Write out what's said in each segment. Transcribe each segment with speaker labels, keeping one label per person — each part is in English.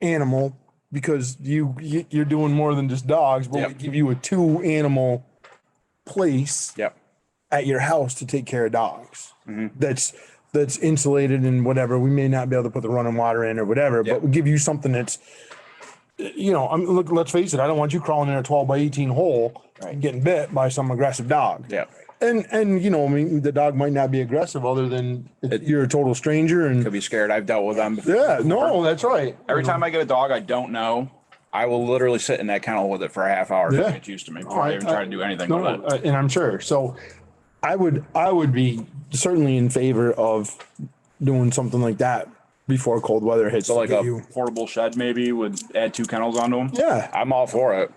Speaker 1: animal because you, you- you're doing more than just dogs, but we
Speaker 2: Yep.
Speaker 1: give you a two animal place
Speaker 2: Yep. Mm-hmm.
Speaker 1: at your house to take care of dogs. That's, that's insulated and whatever. We may not be able to put the running water in or whatever,
Speaker 2: Yep.
Speaker 1: but we give you something that's, you know, I'm, look, let's face it, I don't want you crawling in a twelve by eighteen hole
Speaker 2: Right.
Speaker 1: and getting bit by some aggressive dog.
Speaker 2: Yep.
Speaker 1: And, and you know, I mean, the dog might not be aggressive other than
Speaker 2: It-
Speaker 1: you're a total stranger and
Speaker 2: Could be scared. I've dealt with them. before.
Speaker 1: yeah, no, that's right.
Speaker 2: Every time I get a dog I don't know, I will literally sit in that kennel with it for a half hour to
Speaker 1: Yeah.
Speaker 2: get used to me before I, even try to do anything
Speaker 1: No,
Speaker 2: with it.
Speaker 1: uh, And I'm sure. So I would, I would be certainly in favor of doing something like that before cold weather hits.
Speaker 2: So like
Speaker 1: Get
Speaker 2: a
Speaker 1: you-
Speaker 2: portable shed maybe would add two kennels onto them.
Speaker 1: Yeah,
Speaker 2: I'm all for it.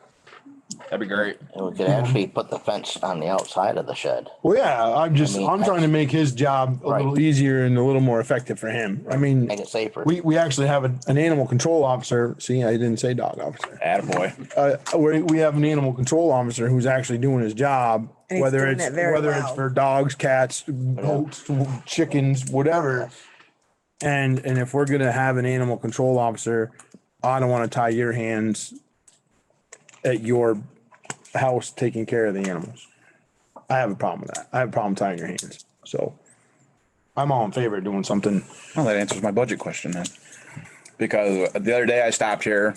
Speaker 2: That'd be great.
Speaker 3: And we could actually put the fence on the outside of the shed.
Speaker 1: well, yeah, I'm just,
Speaker 3: I mean,
Speaker 1: I'm trying to make his job a
Speaker 3: Right.
Speaker 1: little easier and a little more effective for him. I mean,
Speaker 3: Make it safer.
Speaker 1: we, we actually have an, an animal control officer. See, I didn't say dog officer.
Speaker 2: Attaboy.
Speaker 1: Uh, we, we have an animal control officer who's actually doing his job,
Speaker 4: And he's
Speaker 1: whether
Speaker 4: doing
Speaker 1: it's,
Speaker 4: it very
Speaker 1: whether it's
Speaker 4: well.
Speaker 1: for dogs, cats, goats, chickens, whatever. And, and if we're gonna have an animal control officer, I don't wanna tie your hands at your house taking care of the animals. I have a problem with that. I have a problem tying your hands, so. I'm all in favor of doing something.
Speaker 2: Well, that answers my budget question then. Because the other day I stopped here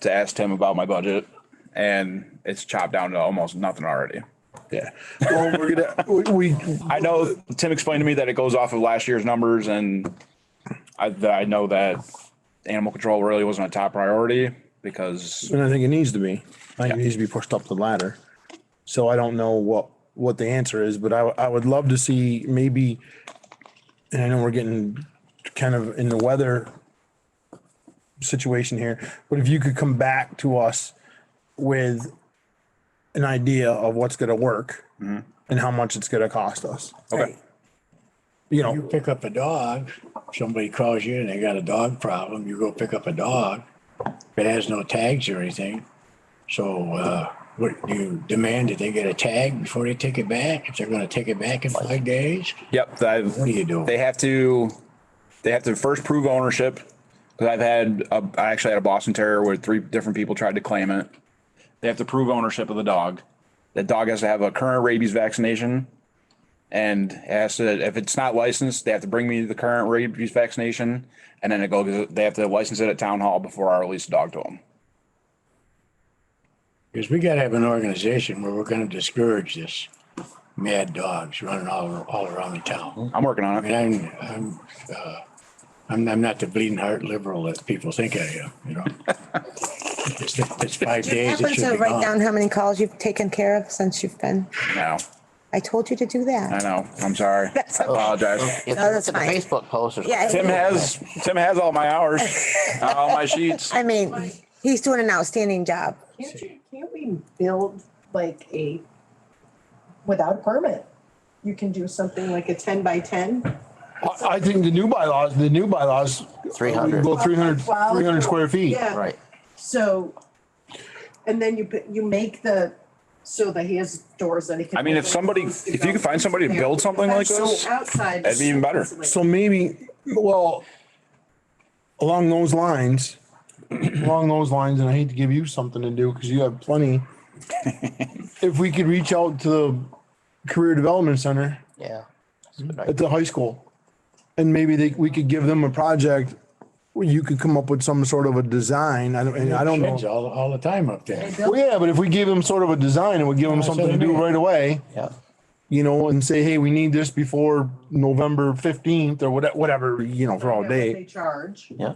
Speaker 2: to ask Tim about my budget and it's chopped down to almost nothing already.
Speaker 1: Yeah. Well, we're gonna, we, we,
Speaker 2: I know Tim explained to me that it goes off of last year's numbers and I, that I know that animal control really wasn't a top priority because
Speaker 1: And I think it needs to be. I think it needs to be pushed up the ladder. So I don't know what, what the answer is, but I, w- I would love to see maybe, and I know we're getting kind of in the weather situation here, but if you could come back to us with an idea of what's gonna work and how much it's gonna cost us,
Speaker 4: Right.
Speaker 1: you know.
Speaker 5: You pick up a dog, somebody calls you and they got a dog problem, you go pick up a dog. If it has no tags or anything, so, uh, what, do you demand that they get a tag before they take it back? If they're gonna take it back in five days,
Speaker 2: Yep, I've,
Speaker 5: what do you do?
Speaker 2: they have to, they have to first prove ownership. Cause I've had, a, I actually had a Boston Terrier where three different people tried to claim it. They have to prove ownership of the dog. The dog has to have a current rabies vaccination. And it has to, if it's not licensed, they have to bring me the current rabies vaccination. And then it goes, they have to license it at town hall before I release the dog to them.
Speaker 5: Because we gotta have an organization where we're gonna discourage this mad dogs running all, all around the town.
Speaker 2: I'm working
Speaker 5: I
Speaker 2: on
Speaker 5: mean,
Speaker 2: it.
Speaker 5: I'm, I'm, uh, I'm, I'm not the bleeding heart liberal that people think I am, you know? It's, it's five days, it
Speaker 4: Happens
Speaker 5: should
Speaker 4: to
Speaker 5: be
Speaker 4: write
Speaker 5: gone.
Speaker 4: down how many calls you've taken care of since you've been,
Speaker 2: No,
Speaker 4: I told you to do
Speaker 2: I
Speaker 4: that.
Speaker 2: know. I'm sorry.
Speaker 4: That's
Speaker 2: I apologize.
Speaker 3: If you
Speaker 4: No, Oh, that's
Speaker 3: look at the Facebook post. there's-
Speaker 4: Yeah.
Speaker 2: Tim has, Tim has all my hours, all my sheets.
Speaker 4: I mean, he's doing an outstanding job.
Speaker 6: Can't you, can't we build like a, without a permit? You can do something like a ten by ten?
Speaker 1: I, I think the new bylaws, the new bylaws.
Speaker 3: 300.
Speaker 1: Well, 300
Speaker 6: Wow.
Speaker 1: 300 square feet.
Speaker 6: Yeah.
Speaker 3: Right.
Speaker 6: So, and then you, put- you make the, so that he has doors that he can.
Speaker 2: I mean, if
Speaker 6: open and
Speaker 2: somebody-
Speaker 6: close to
Speaker 2: if you
Speaker 6: go
Speaker 2: could find somebody to
Speaker 6: there.
Speaker 2: build something like
Speaker 6: So
Speaker 2: this,
Speaker 6: Outside.
Speaker 2: that'd be even better.
Speaker 1: So maybe, well, along those lines, along those lines, and I hate to give you something to do because you have plenty. If we could reach out to the Career Development Center
Speaker 3: Yeah. That's a good idea.
Speaker 1: at the high school. And maybe they, we could give them a project where you could come up with some sort of a design. I don't, and I don't
Speaker 5: Sheds
Speaker 1: know.
Speaker 5: All, all the time up there.
Speaker 1: Well, yeah, but if we gave them sort of a design and we give them
Speaker 5: That's what
Speaker 1: something to
Speaker 5: I
Speaker 1: do
Speaker 5: mean.
Speaker 1: right away.
Speaker 3: Yeah.
Speaker 1: you know, and say, hey, we need this before November fifteenth or whatever, whatever, you know, for all
Speaker 6: They
Speaker 1: day.
Speaker 6: charge.
Speaker 3: Yeah.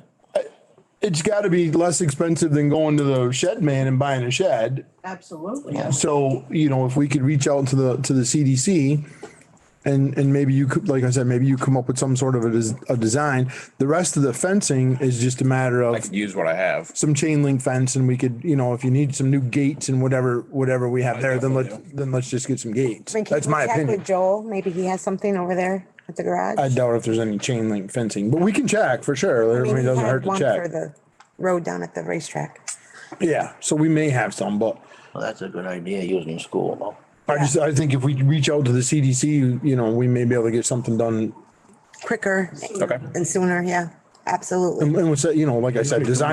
Speaker 1: It's gotta be less expensive than going to the shed man and buying a shed.
Speaker 6: Absolutely.
Speaker 3: Yeah.
Speaker 1: So, you know, if we could reach out to the, to the CDC and, and maybe you could, like I said, maybe you come up with some sort of a, des- a design. The rest of the fencing is just a matter
Speaker 2: I
Speaker 1: of
Speaker 2: could use what I have.
Speaker 1: some chain link fence and we could, you know, if you need some new gates and whatever, whatever we have there, then let's, then let's just get some gates.
Speaker 4: I mean, can
Speaker 1: That's
Speaker 4: you
Speaker 1: my
Speaker 4: check with
Speaker 1: opinion.
Speaker 4: Joel, maybe he has something over there at the garage.
Speaker 1: I doubt if there's any chain link fencing, but we can check for sure. I mean, it
Speaker 4: he
Speaker 1: doesn't
Speaker 4: had
Speaker 1: hurt to
Speaker 4: one For
Speaker 1: check.
Speaker 4: the road down at the racetrack.
Speaker 1: Yeah, so we may have some, but
Speaker 3: Well, that's a good idea using school though.
Speaker 1: I just, I think if we reach out to the CDC, you know, we may be able to get something done.
Speaker 4: Quicker
Speaker 2: Okay.
Speaker 4: and sooner, yeah, absolutely.
Speaker 1: And we'll say, you know, like I said, design